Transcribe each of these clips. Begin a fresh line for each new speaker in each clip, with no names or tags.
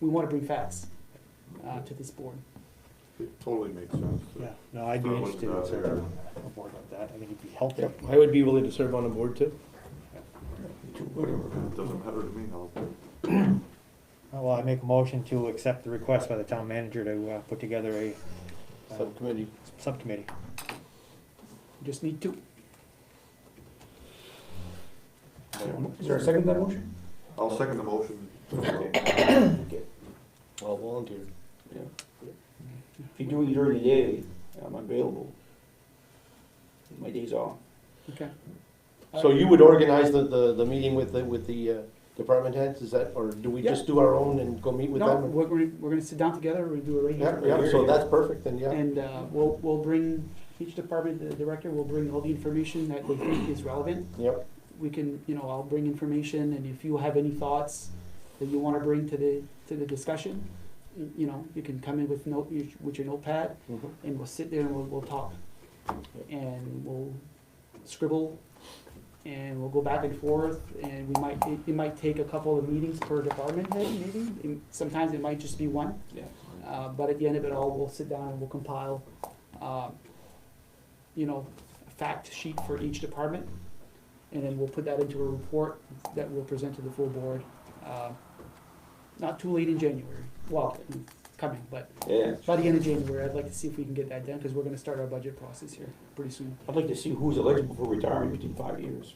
we want to bring facts uh, to this board.
It totally makes sense.
Yeah, no, I'd be
Throw it
interested in
out
serving
there.
on a board like that. I think it'd be helpful.
I would be willing to serve on a board too.
It doesn't matter to me, I'll,
Well, I make a motion to accept the request by the town manager to, uh, put together a uh,
Subcommittee.
subcommittee.
You Just need to,
Is there a second to that motion?
I'll second the motion.
All volunteer.
If you're doing it during the day, I'm available. My days off.
okay.
So you would organize the, the, the meeting with the, with the uh, department heads, is that, or do we just do our own and go meet with
Uh, No,
them?
we're gonna, we're gonna sit down together, we're gonna do it right
Yeah,
here.
yeah, so that's perfect, then, yeah.
And uh, we'll, we'll bring, each department, the director will bring all the information that they think is relevant.
Yep,
We can, you know, I'll bring information, and if you have any thoughts that you wanna bring to the, to the discussion, y- you know, you can come in with note, with your notepad,
mhm,
and we'll sit there and we'll, we'll talk. And we'll scribble, and we'll go back and forth, and we might, it, it might take a couple of meetings per department head, maybe, and sometimes it might just be one.
Yeah.
Uh, but at the end of it all, we'll sit down and we'll compile, uh, you know, a fact sheet for each department. And then we'll put that into a report that we'll present to the full board, uh, not too late in January, well, coming, but
Yeah.
by the end of January, I'd like to see if we can get that done, because we're gonna start our budget process here pretty soon.
I'd like to see who's eligible for retirement within five years.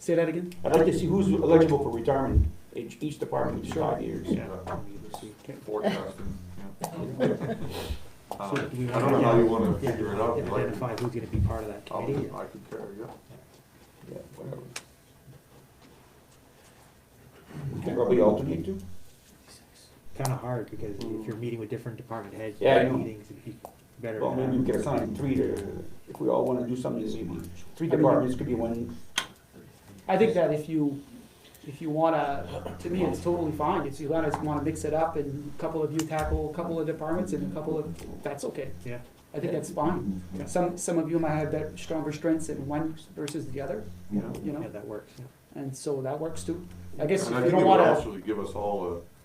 Say that again?
I'd like to see who's eligible for retirement in each department within five years.
Yeah, Forecasting, yeah. Uh,
So do we
I don't
wanna-
know how you wanna
Yeah,
figure it out, you like,
Identify who's gonna be part of that
I'll,
committee.
I could care, yeah.
Yeah, whatever. You can Probably alternate too.
Kinda hard, because if you're meeting with different department heads,
Yeah, I know.
meetings, it'd be better.
Well,
to
maybe we
have-
could assign three to, if we all wanna do something this evening. Three departments could be one,
I think that if you, if you wanna, to me, it's totally fine, if you wanna, wanna mix it up and a couple of you tackle a couple of departments and a couple of, that's okay.
Yeah.
I think that's fine.
Yeah.
Some, some of you might have better, stronger strengths in one versus the other,
You know?
you
Yeah,
know,
that works, yeah.
and so that works too. I guess
And I
if you
think it
don't
would
wanna,
also give us all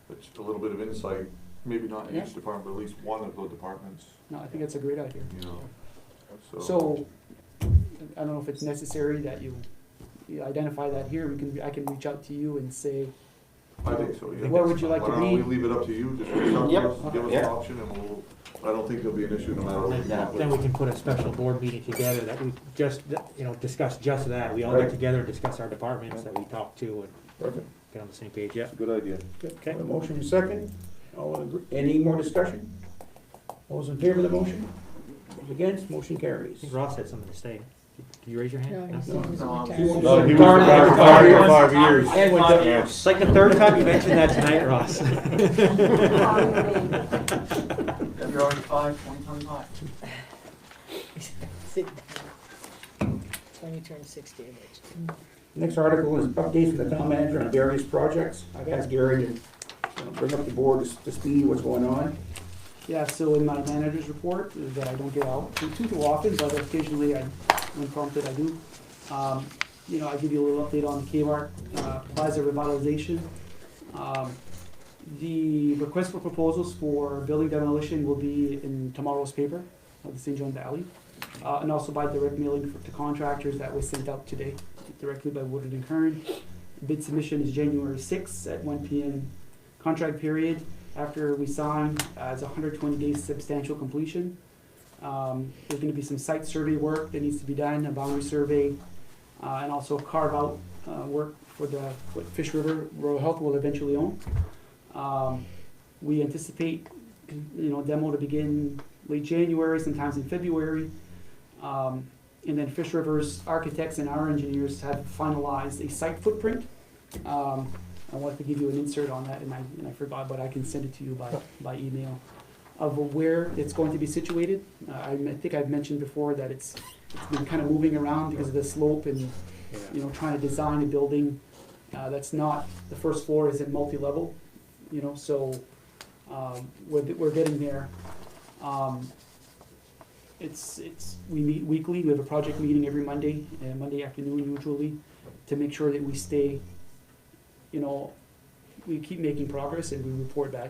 a, a ch- a little bit of insight, maybe not in
Yeah.
each department, but at least one of the departments,
no, I think that's a great idea.
you know, so.
So, I don't know if it's necessary that you you identify that here, we can, I can reach out to you and say,
I think so, yeah.
Where would you like to
Why don't we
be?
leave it up to you, just reach out
Yep.
to us, give us an
Yeah.
option, and we'll, I don't think there'll be an issue no matter what. we come up with.
Then we can put a special board meeting together that we just, you know, discuss just that. We all get
Right.
together and discuss our departments that we talk to and
Perfect.
get on the same page, yeah.
Good idea.
Okay.
A Motion and second. All in agree- Any more discussion? All those in favor of the motion? Those Against, motion
I
carries.
think Ross had something to say. Did you raise your hand? No?
No, he was retired for five, five years.
It's like the third time you mentioned that tonight, Ross.
February five, twenty twenty-five.
Sit down. It's when you turn sixty, which.
Next article is updates from the town manager on various projects. I've asked Gary to you know, bring up the board to s- to see what's going on.
yeah, so in my manager's report, uh, that I don't get out too, too too often, but occasionally I, when prompted, I do. Um, you know, I give you a little update on the Kmart, uh, Plaza revitalization. Um, the request for proposals for building demolition will be in tomorrow's paper of the St. John Valley. Uh, and also by direct mailing for- to contractors that was sent out today, directly by Woodard and Kern. Bid submission is January sixth at one P M. Contract period, after we sign, uh, it's hundred twenty days substantial completion. Um, there's gonna be some site survey work that needs to be done, a boundary survey, uh, and also carve out, uh, work for the, what Fish River Rural Health will eventually own. Um, we anticipate, you know, demo to begin late January, sometimes in February. Um, and then Fish River's architects and our engineers have finalized a site footprint. Um, I wanted to give you an insert on that, and I, and I forgot, but I can send it to you by, by email, of where it's going to be situated. Uh, I I think I've mentioned before that it's, it's been kind of moving around because of the slope and, you know, trying to design a building uh, that's not, the first floor isn't multi-level, you know, so um, we're, we're getting there. Um, It's, it's, we meet weekly, we have a project meeting every Monday, uh, Monday afternoon usually, to make sure that we stay you know, we keep making progress and we report back